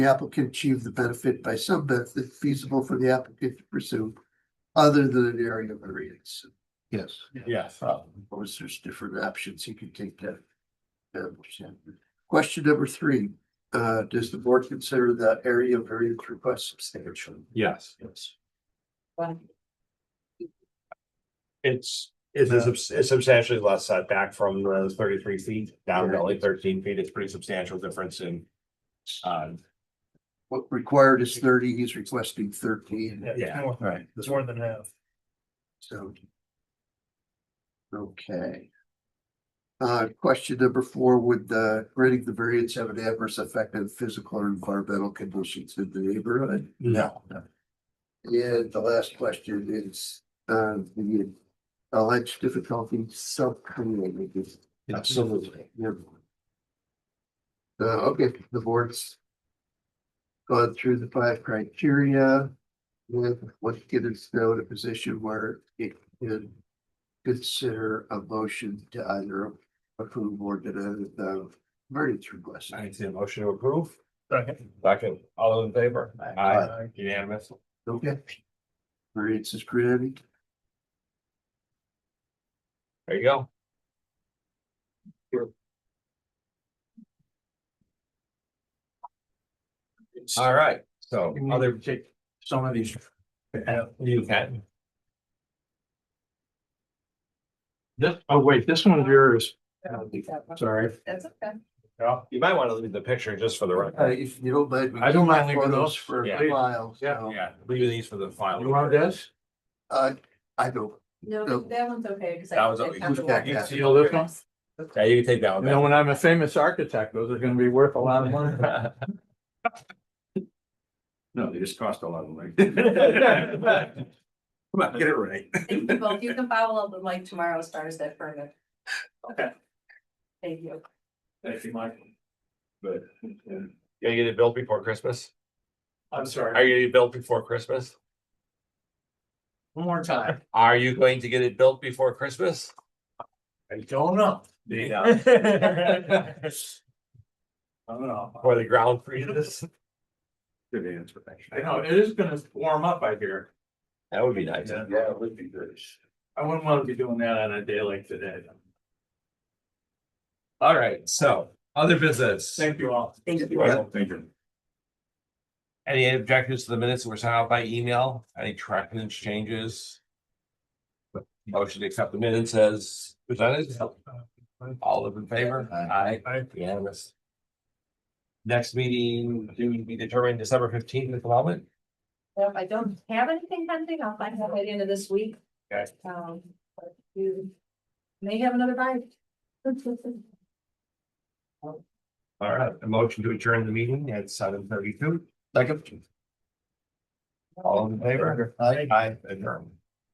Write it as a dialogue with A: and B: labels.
A: the applicant achieve the benefit by some method feasible for the applicant to pursue other than an area variance. Yes.
B: Yes.
C: Uh,
A: Suppose there's different options, he could take that. uh, percent. Question number three, uh, does the board consider the area variance request substantial?
B: Yes.
A: Yes.
B: It's,
C: It's a subs- it's substantially less setback from the thirty-three feet down to only thirteen feet. It's pretty substantial difference in. Uh,
A: What required is thirty, he's requesting thirteen.
D: Yeah,
C: Yeah.
D: it's more,
A: Right.
D: it's more than half.
A: So. Okay. Uh, question number four, would the granting the variance have an adverse effect on physical or environmental conditions in the neighborhood?
C: no,
A: And the last question is, uh, the alleged difficulty self-created.
C: Absolutely.
A: Yeah. Uh, okay, the board's gone through the five criteria. With what get us now in a position where it could consider a motion to either approve or deny the variance request.
C: I see a motion to approve.
D: Second.
C: Second, all those in favor? Aye,
D: Aye.
C: unanimous.
A: Okay. Variance is granted.
C: There you go. All right, so other.
B: Some of these,
C: You can.
B: this, oh wait, this one's yours,
E: That's
B: sorry.
E: okay.
C: You might want to leave the picture just for the
A: Uh,
C: record.
A: if you don't mind. we
B: I don't mind
A: keep
B: leaving
A: photos
B: those,
A: For a
C: yeah.
A: while, so,
C: Yeah, leave these for the final.
B: You want this?
A: uh, I don't,
E: No,
A: Nope.
E: that one's okay. 'cause I-
C: That was
E: I
C: okay.
E: found the
A: Who's that
E: one.
A: guy?
B: You know this one?
C: Yeah, you can take that
B: You
C: one.
B: know,
C: back.
B: when I'm a famous architect, those are gonna be worth a lot of money.
C: No, they just cost a lot of money. Come on, get it right.
E: Thank you both. You can follow up with Mike tomorrow as far as that further.
C: Okay.
E: Thank you.
D: Thank you, Michael.
C: But, yeah, you get it built before Christmas?
D: I'm
C: Are
D: sorry,
C: you gonna get it built before Christmas?
D: one more time.
C: Are you going to get it built before Christmas?
D: I don't know.
C: Yeah.
D: I don't know.
C: Or the ground freezes? Good answer.
B: I know, it is gonna warm up, I hear.
C: That would be nice.
D: it would be good.
B: I wouldn't wanna be doing that on a day like today.
C: All right, so other business.
D: Thank you all.
E: Thank you.
C: Thank you. Any objectives to the minutes that were sent out by email? Any corrections, changes? Motion to accept the minutes as presented? All of in favor? Aye.
D: Aye.
C: Unanimous. Next meeting, do we determine December fifteenth at the moment?
E: Well, If I don't have anything pending, I'll find out by the end of this week.
C: Okay.
E: Um, but you may have another bite.
C: All right, a motion to adjourn the meeting at seven thirty-two. Second. All in favor? Aye. Aye, adjourn.